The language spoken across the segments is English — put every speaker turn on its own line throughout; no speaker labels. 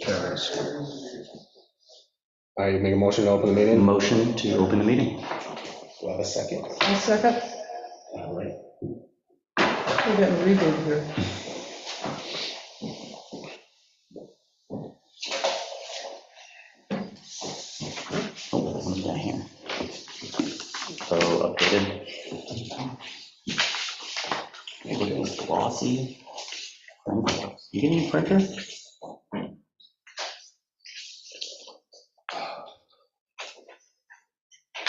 Carries. I make a motion to open the
Mm.
meeting.
Motion to open the meeting.
We'll have a second.
I'll second.
All right.
We're getting reboot here.
Oh, what we got here? So updated. Hey, look at this glossy. You getting a printer?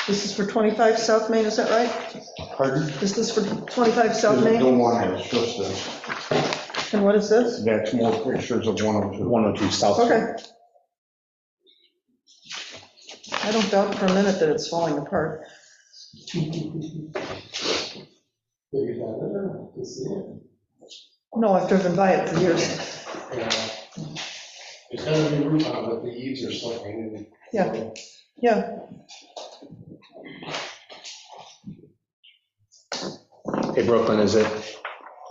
This is for 25 South Main, is that right?
Pardon?
Is this for 25 South
There's no
Main?
one has, just this.
And what is this?
That's more pictures of 102. 102 South.
Okay. I don't doubt for a minute that it's falling apart. No, I've driven by it for years.
It's got a new roof on it, but the eaves are sloping.
Yeah, yeah.
Hey, Brooklyn, is it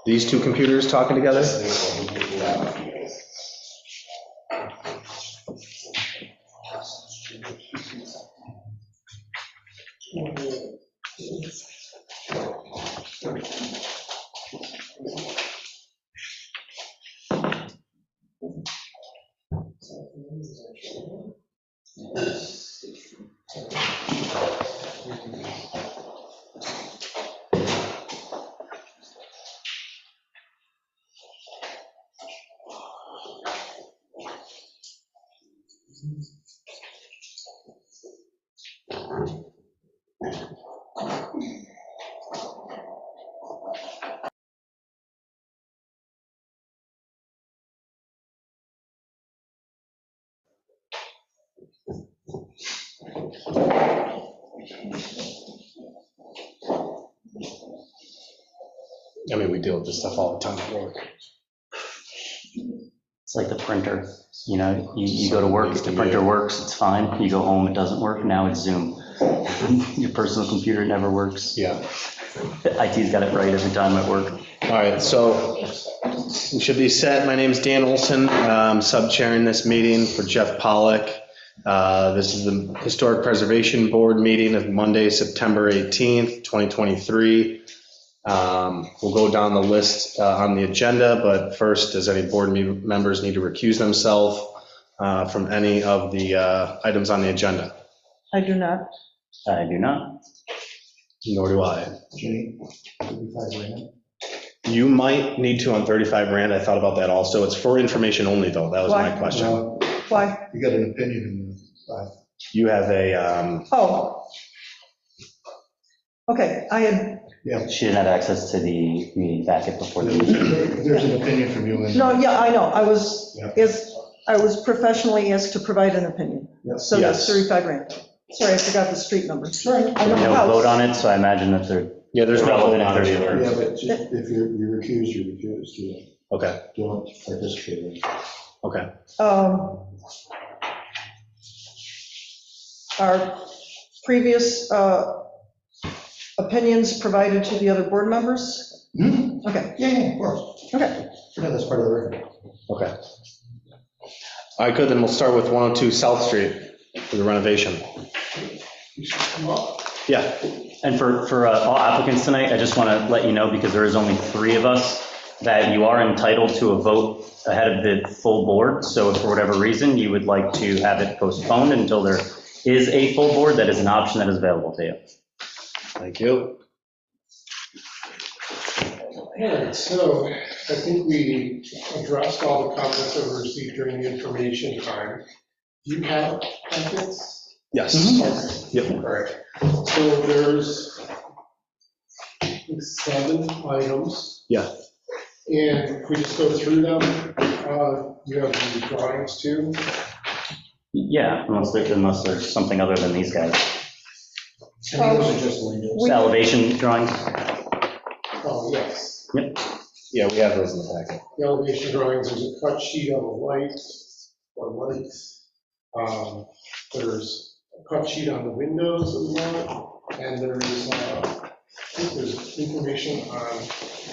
these two computers talking together? I mean, we deal with this stuff all the time at work.
It's like the printer, you know, you, you go to work, if the printer works, it's fine. You go home, it doesn't work, now it's Zoom. Your personal computer never works.
Yeah.
IT's got it right every time at work.
All right, so we should be set. My name's Dan Olson. I'm sub-chairing this meeting for Jeff Pollock. Uh, This is the Historic Preservation Board meeting of Monday, September 18th, 2023. Um, We'll go down the list uh, on the agenda, but first, does any board me- members need to recuse themselves uh, from any of the uh, items on the agenda?
I do not.
I do not.
Nor do I. You might need to on 35 Rand. I thought about that also. It's for information only, though. That was my
Why?
question.
Why?
Uh, You got an opinion in
You have a, um,
Oh. Okay, I had,
She didn't have access to the, the packet before the meeting.
that. There's an opinion from you in.
no, yeah, I know, I was,
Yeah.
is, I was professionally asked to provide an opinion.
Yeah.
So that's
Yes.
35 grand. Sorry, I forgot the street number. Sorry, I
We
don't
don't vote
know.
on it, so I imagine that they're
yeah, there's no vote
relevant
on
if
it
there's
either.
Yeah, but ju- if you're you recused, you recused. You
Okay,
Don't participate in it.
okay.
Um, Our previous uh, opinions provided to the other board members?
Hmm?
Okay,
Yeah, yeah, of course.
okay.
Yeah, that's part of the record.
Okay. All right, good, then we'll start with 102 South Street for the renovation. Yeah,
And for, for uh, all applicants tonight, I just want to let you know, because there is only three of us, that you are entitled to a vote ahead of the full board. So if for whatever reason you would like to have it postponed until there is a full board, that is an option that is available to you.
thank you.
Alright, so I think we addressed all the comments that were received during the information time. Do you have comments?
Yes.
Yep. Alright, so there's I think, seven items.
Yeah.
And if we just go through them, uh, you have the drawings too.
Yeah, unless there, unless there's something other than these guys.
Um, we-
Elevation drawings?
Oh, yes.
Yeah, we have those in the packet.
the elevation drawings, there's a cut sheet on the light, or lights. Um, There's a cut sheet on the windows of the lot, and there's, uh, I think there's information on